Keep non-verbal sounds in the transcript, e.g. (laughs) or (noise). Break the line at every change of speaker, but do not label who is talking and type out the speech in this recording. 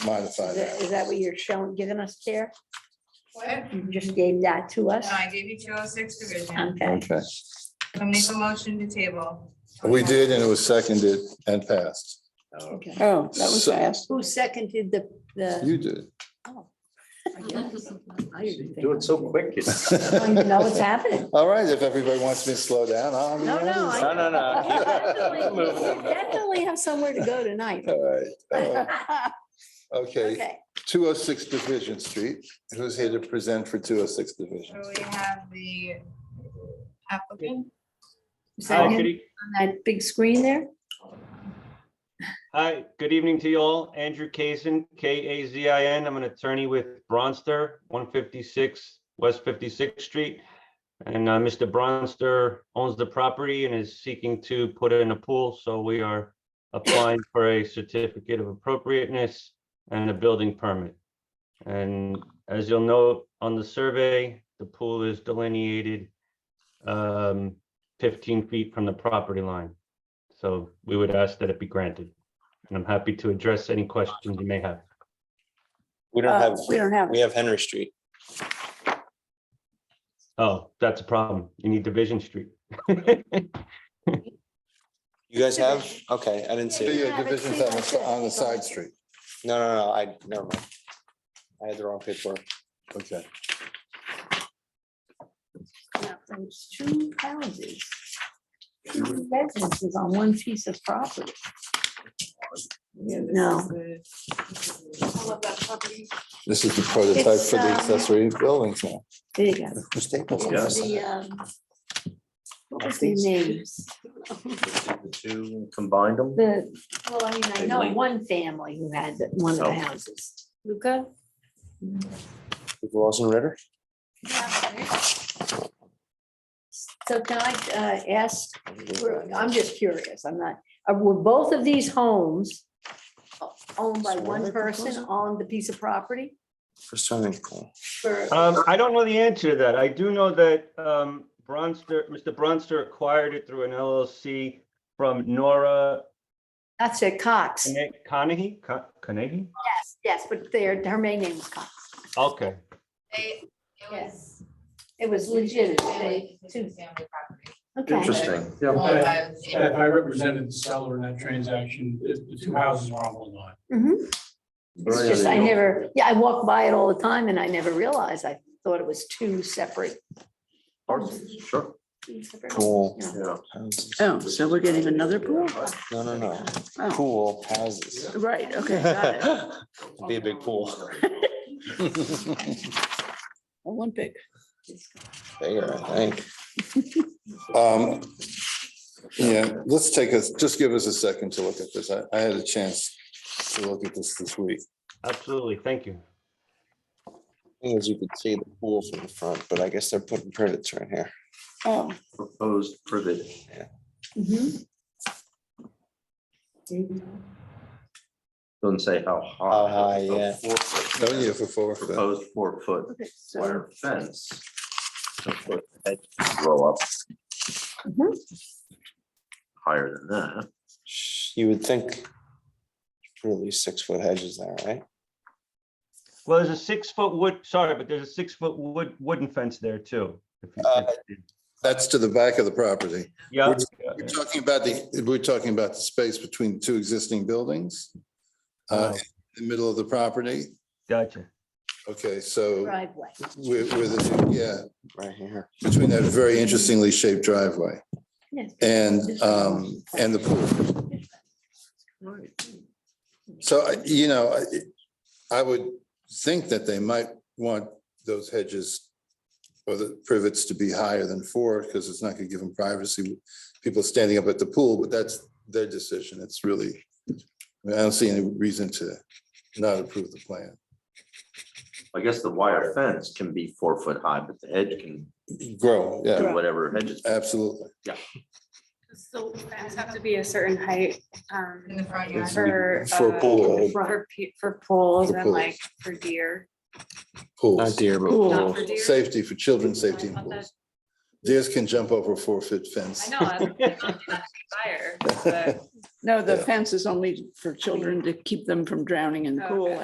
modify
Is that-
that.
is that what you're showing, giving us there?
What?
You just gave that to
No,
us?
I gave you two oh six division.
Okay.
Okay,
I make a motion to table.
we did, and it was seconded and passed.
Okay.
Oh, that was
So-
fast.
Who seconded the, the?
You did.
oh, I guess. (laughs) I didn't
Do it
think-
so
(laughs)
quick. you-
I don't even know
(laughs)
what's happening.
All right, if everybody wants me to slow down, I'll. be
No, no,
nice.
I-
No, no, no. keep it.
Definitely (laughs)
Move
you
it.
definitely have somewhere to go
(laughs)
tonight.
All
(laughs)
right, all right. Okay,
Okay,
two oh six Division Street. Who's here to present for two oh six Division?
So we have the applicant.
Is that
Hi,
him
good, e-
on that big screen there?
hi, good evening to you all. Andrew Kazin, K A Z I N. I'm an attorney with Bronster, one fifty-six West Fifty-sixth Street. And uh, Mr. Bronster owns the property and is seeking to put in a pool, so we are applying for a certificate of appropriateness and a building permit. And as you'll note on the survey, the pool is delineated um, fifteen feet from the property line. So we would ask that it be granted. And I'm happy to address any questions you may have.
We don't
Uh,
have,
We don't have,
we have Henry Street.
Oh, that's a problem. You need Division Street. (laughs)
You guys have? Okay, I didn't see it.
Yeah, Division's on the, on the side street.
No, no, no, I, never mind. I had the wrong paperwork.
Okay,
Now, There's two houses. two Residences on one piece of property. No.
I love that property.
this is the prototype
It's,
for the
um,
accessory buildings now.
There you go.
Mr. Staples.
It's the, um, What was the name?
Two combined them?
The, well, I mean, I know one family who had the- one of the houses. Luca?
Lawson Ritter?
So can I uh, ask, we're- I'm just curious, I'm not, uh, were both of these homes owned by one person on the piece of property?
For swimming pool.
For-
Um, I don't know the answer to that. I do know that, um, Bronster, Mr. Bronster acquired it through an LLC from Nora
That's it, Cox.
Cone- Conahy, Co- Conahy?
Yes, yes, but their, her main name was Cox.
Okay,
They, it was.
It was legit. they-
It's a
two-
family property.
Okay.
Interesting.
Yeah,
Owned
I-
by the same-
If I represented the seller in that transaction, the the two houses were on one lot.
Mhm. It's just, I never, yeah, I walk by it all the time and I never realized, I thought it was two separate.
Sure.
two separate-
Cool.
Yeah.
Houses.
oh, so we're getting another pool?
No, no, no.
Oh,
Pool houses.
Right, okay. got
(laughs)
it.
It'd Be a big pool. (laughs)
Olympic.
Bigger, I think.
Um, Yeah, let's take us, just give us a second to look at this. I, I had a chance to look at this this week.
absolutely. Thank you.
Thing is, you could see the pool from the front, but I guess they're putting privets right here.
Oh,
Proposed privet.
Mhm.
Doesn't say how high.
How high,
it's a
yeah.
four foot
Oh, yeah, for four. for that.
Proposed four foot
okay, so
wire fence. So put that Grow up.
Mhm.
Higher than that.
You would think really six foot hedges there, right?
Well, there's a six-foot wood, sorry, but there's a six-foot wood, wooden fence there too. if you-
Uh,
That's to the back of the property.
Yeah.
We're talking about the, we're talking about the space between two existing buildings. uh, in The middle of the property.
Oh, Gotcha.
Okay, so
Driveway.
where, where the, yeah,
Right here.
between that very interestingly shaped driveway
Yes.
and, um, and the pool. So, I- you know, I, I would think that they might want those hedges or the privets to be higher than four, because it's not gonna give them privacy, people standing up at the pool, but that's their decision, it's really, I mean, I don't see any reason to not approve the plan.
I guess the wire fence can be four foot high, but the hedge can
Grow, yeah,
do whatever hedges.
absolutely.
So fans have to be a certain height, um,
In the front yard.
It's-
for.
For a
uh,
pool, a
For, pe- for pools
For
and
pools.
like for deer.
Not
pools,
deer, but
Pool.
pool.
For deer?
safety for children, safety in
I thought
pools. Deers can jump over a four-foot
I
fence.
know, I'm
(laughs)
not fire, but.
no, the
Yeah.
fence is only for children to keep them from drowning in the
Okay.
pool